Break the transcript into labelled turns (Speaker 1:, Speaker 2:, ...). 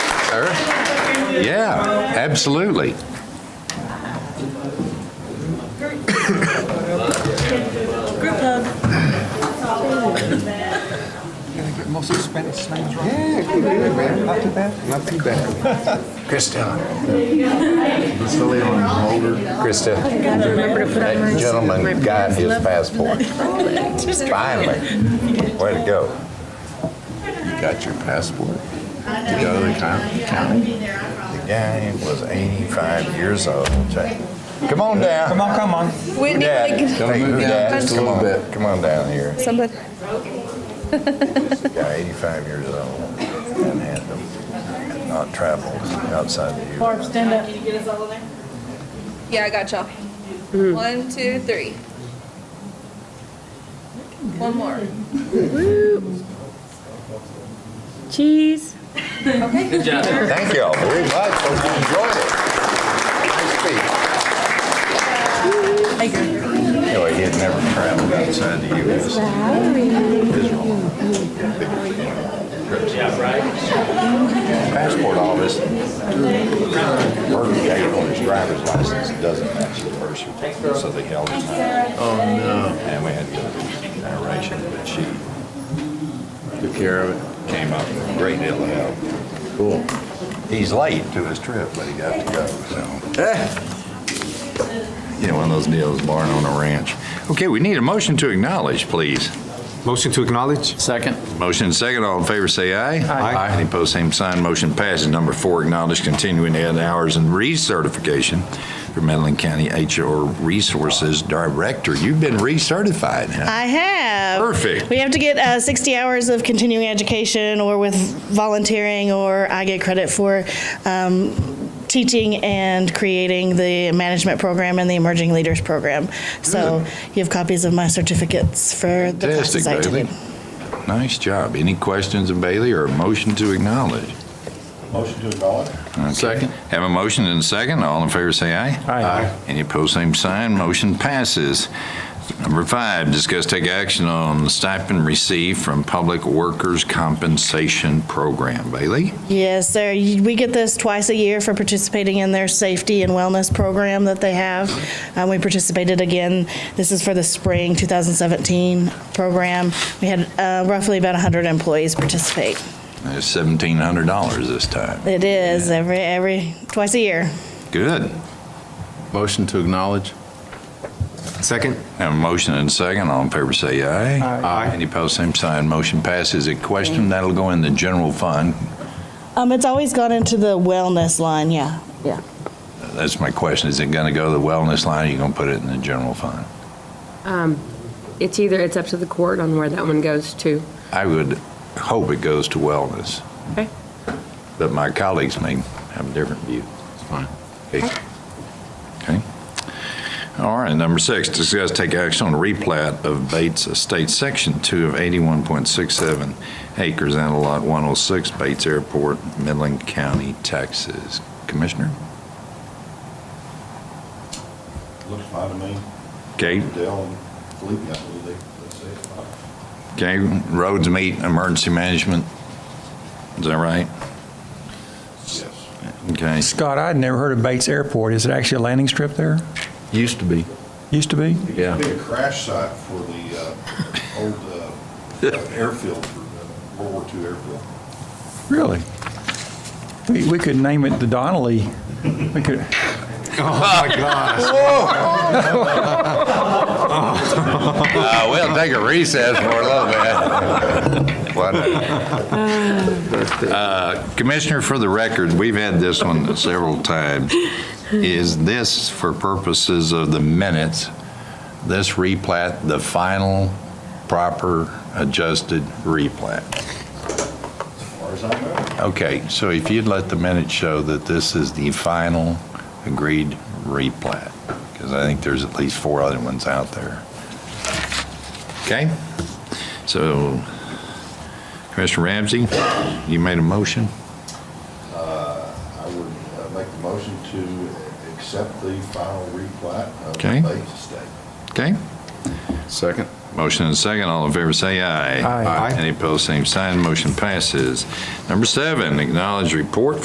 Speaker 1: sir. Yeah, absolutely.
Speaker 2: Group hug.
Speaker 3: Mostly Spanish names, right? Yeah, good, good, man. Not too bad. Not too bad.
Speaker 4: Krista. Krista,
Speaker 2: Gotta remember to put on
Speaker 4: that
Speaker 2: my- my
Speaker 4: gentleman got his
Speaker 2: left-
Speaker 4: passport.
Speaker 2: Just-
Speaker 4: Finally. Way to go.
Speaker 1: You got your passport to go to the coun- county?
Speaker 4: The guy was 85 years old. Jay. Come on down.
Speaker 3: Come on, come on.
Speaker 5: Whitney,
Speaker 4: Dad,
Speaker 5: like,
Speaker 4: Hey,
Speaker 1: move down
Speaker 4: Dad,
Speaker 1: just a
Speaker 4: come
Speaker 1: little
Speaker 4: on.
Speaker 1: bit.
Speaker 4: Come on down here.
Speaker 5: somebody,
Speaker 4: This guy, 85 years old, and had them not traveled outside the U.S.
Speaker 2: Barb, stand up.
Speaker 5: yeah, I got y'all. One, two, three. One more.
Speaker 2: Cheese.
Speaker 4: Thank y'all very much. Hope you enjoyed it. Nice speech. Anyway, he had never traveled outside the U.S. Passport office, birth date on his driver's license doesn't match his birth certificate, so they held him out. Oh, no. And we had to go through narration, but she
Speaker 1: Took care of
Speaker 4: came up with a great deal of help. Cool. He's late to his trip, but he got to go, so. You know, one of those deals, barn on a ranch.
Speaker 1: it. Okay, we need a motion to acknowledge, please.
Speaker 3: Motion to acknowledge?
Speaker 6: Second.
Speaker 1: Motion second, all in favor, say aye.
Speaker 3: Aye.
Speaker 1: Any opposed, same sign, motion passes. Number four, acknowledge continuing ed hours and recertification for Medlin County HR Resources Director. You've been recertified, huh?
Speaker 7: I have.
Speaker 1: Perfect.
Speaker 7: We have to get uh, 60 hours of continuing education or with volunteering, or I get credit for um, teaching and creating the management program and the emerging leaders program. So you have copies of my certificates for the
Speaker 1: Fantastic,
Speaker 7: classes I
Speaker 1: Bailey.
Speaker 7: attended.
Speaker 1: Nice job. Any questions of Bailey or a motion to acknowledge?
Speaker 4: Motion to acknowledge?
Speaker 1: Okay.
Speaker 6: Second.
Speaker 1: Have a motion and a second. All in favor, say aye.
Speaker 6: Aye. Aye.
Speaker 1: Any opposed, same sign. Motion passes. Number five, discuss take action on stipend received from Public Workers Compensation Program. Bailey?
Speaker 7: Yes, sir. You- We get this twice a year for participating in their safety and wellness program that they have. Um, we participated again. This is for the spring 2017 program. We had uh, roughly about 100 employees participate.
Speaker 1: That's $1,700 this time.
Speaker 7: It is every every twice a year.
Speaker 1: Good.
Speaker 8: Motion to acknowledge?
Speaker 3: Second?
Speaker 1: Have a motion and a second. All in favor, say aye.
Speaker 3: Aye.
Speaker 1: Any opposed, same sign. Motion passes. A question, that'll go in the general fund.
Speaker 7: Um, it's always gone into the wellness line. Yeah, yeah.
Speaker 1: That's my question. Is it going to go to the wellness line or you going to put it in the general fund?
Speaker 9: It's either, it's up to the court on where that one goes to.
Speaker 1: I would hope it goes to wellness.
Speaker 9: Okay.
Speaker 1: But my colleagues may have a different view. It's fine. Okay. All right, number six, discuss take action on replat of Bates Estate Section 2 of 81.67 acres and a lot 106 Bates Airport, Midland County, Texas. Commissioner?
Speaker 4: Looks fine to me.
Speaker 1: Okay,
Speaker 4: Dell and Felipe, I believe they, they say it's fine.
Speaker 1: okay, roads meet, emergency management. Is that right?
Speaker 4: Yes.
Speaker 1: Okay.
Speaker 10: Scott, I'd never heard of Bates Airport. Is it actually a landing strip there?
Speaker 8: Used to be.
Speaker 10: Used to be?
Speaker 8: Yeah.
Speaker 4: Big crash site for the, uh, old, uh, airfield, for, uh, World War II airfield.
Speaker 10: Really? We, we could name it the Donnelly. We could,
Speaker 3: Oh,
Speaker 1: Uh, We'll take a recess for a little bit. Why not? Uh, Commissioner, for the record, we've had this one several times. Is this, for purposes of the minutes, this replat the final proper adjusted replat?
Speaker 4: As far as I know,
Speaker 1: Okay, so if you'd let the minutes show that this is the final agreed replat, because I think there's at least four other ones out there. Okay? So Commissioner Ramsey, you made a motion?
Speaker 4: uh, I would uh, make the motion to accept the final replat of
Speaker 1: Okay.
Speaker 4: the Bates Estate.
Speaker 1: Okay?
Speaker 8: Second?
Speaker 1: Motion and second, all in favor say aye.
Speaker 3: Aye. Aye.
Speaker 1: Any opposed, same sign, motion passes. Number seven, acknowledge report